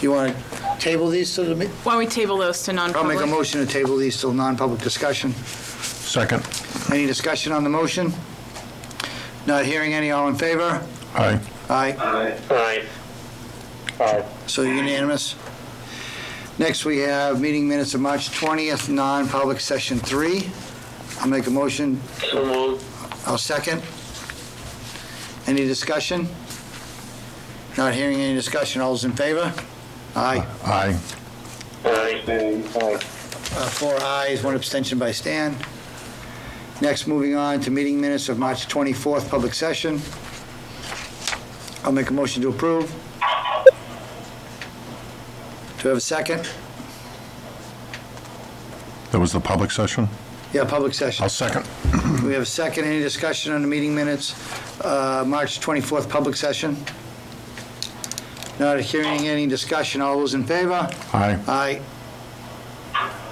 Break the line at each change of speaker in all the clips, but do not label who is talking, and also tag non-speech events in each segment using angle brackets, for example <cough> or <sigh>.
You want to table these to the, me-
Why don't we table those to
I'll
non-public?
make a motion to table these till non-public discussion.
Second.
Any discussion on the motion? Not hearing any, all in favor?
Aye.
Aye,
Aye. Aye.
so unanimous. Next, we have meeting minutes of March 20th, non-public session three. I'll make a motion,
So moved.
I'll second. Any discussion? Not hearing any discussion, all's in favor? Aye,
Aye.
Aye. Aye.
Uh, four ayes, one abstention by Stan. Next, moving on to meeting minutes of March 24th, public session. I'll make a motion to approve. Do I have a second?
That was the public session?
Yeah, public session.
I'll second.
We have a second. Any discussion on the meeting minutes, uh, March 24th, public session? Not hearing any discussion. All those in favor?
Aye.
Aye.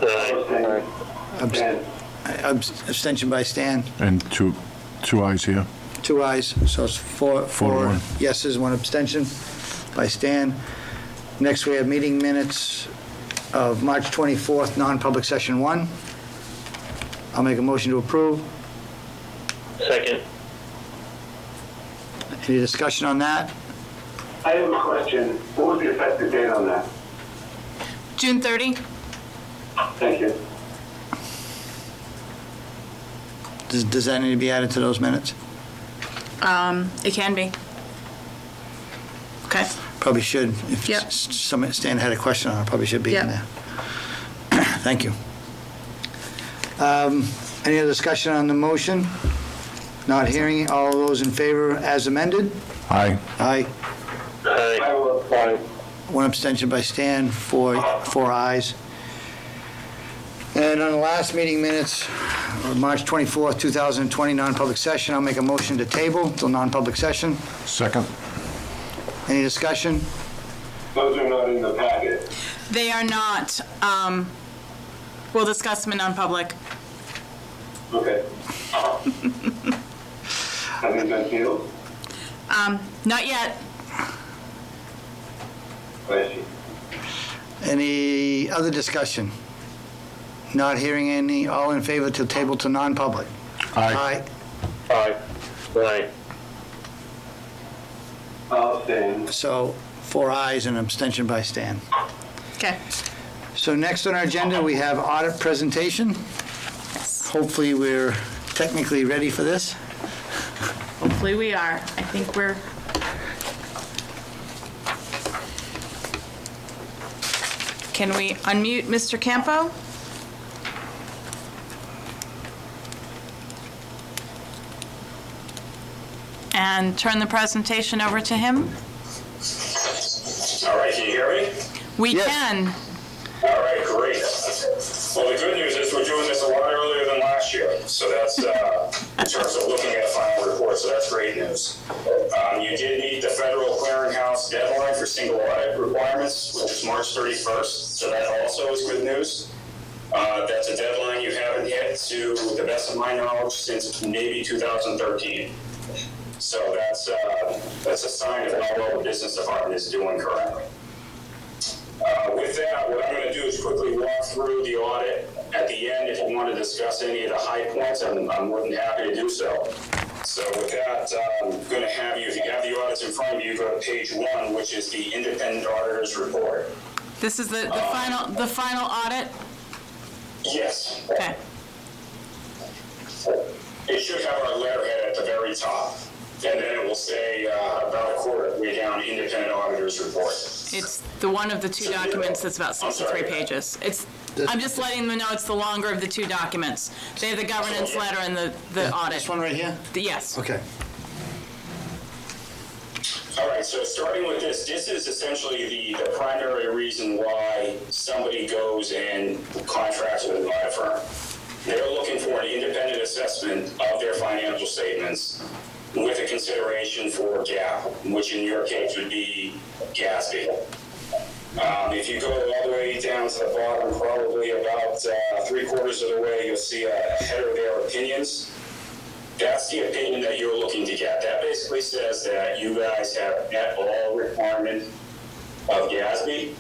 Aye.
Abs- abs- Abstention by Stan.
And two, two ayes here.
Two ayes, so it's four,
Four to
four
one.
yeses, one abstention by Stan. Next, we have meeting minutes of March 24th, non-public session one. I'll make a motion to approve.
Second.
Any discussion on that?
I have a question. What was the effective date on that?
June 30?
Thank you.
Does, does that need to be added to those minutes?
Um, It can be. Okay.
Probably should. If
Yep.
s- some, Stan had a question on it, probably should be in there.
Yep.
<clears throat> Thank you. Um, Any other discussion on the motion? Not hearing, all those in favor as amended?
Aye.
Aye.
Aye.
uh,
Aye.
One abstention by Stan, four, four ayes. And on the last meeting minutes, uh, March 24th, 2020, non-public session, I'll make a motion to table till non-public session.
Second.
Any discussion?
Those are not in the packet.
They are not, um, we'll discuss them in non-public.
Okay. Have they been sealed?
Um, Not yet.
Thank you.
Any other discussion? Not hearing any, all in favor to table to non-public?
Aye.
Aye. Aye.
I'll abstain.
So four ayes and abstention by Stan.
Okay.
So next on our agenda, we have audit presentation. Hopefully, we're technically ready for this.
Hopefully we are. I think we're, can we unmute Mr. Campo? And turn the presentation over to him?
All right, can you hear me?
We
Yes.
can.
All right, great. Well, the good news is we're doing this a lot earlier than last year, so that's, uh, in terms of looking at a final report, so that's great news. Um, You did meet the federal clearinghouse deadline for single audit requirements, which is March 31st, so that also is good news. Uh, That's a deadline you haven't hit, to the best of my knowledge, since maybe 2013. So that's, uh, that's a sign of how well the business department is doing currently. Uh, With that, what I'm going to do is quickly walk through the audit. At the end, if you want to discuss any of the high points, I'm I'm more than happy to do so. So with that, uh, I'm going to have you, if you have the audits in front of you, go to page one, which is the independent auditor's report.
This is the, the final, the final audit?
Yes,
Okay.
it should have our letterhead at the very top, and then it will say uh, about a quarter way down, independent auditor's report.
It's the one of the two documents that's about 63 pages. It's, I'm just letting them know it's the longer of the two documents. They have the governance letter and the, the audit.
This one right here?
The- Yes.
Okay.
All right, so starting with this, this is essentially the, the primary reason why somebody goes and contracts with an audit firm. They're looking for an independent assessment of their financial statements with a consideration for GAAP, which in your case would be GASB. Um, if you go all the way down to the bottom, probably about uh, three quarters of the way, you'll see a header there, opinions that's the opinion that you're looking to get. That basically says that you guys have met all requirement of GASB.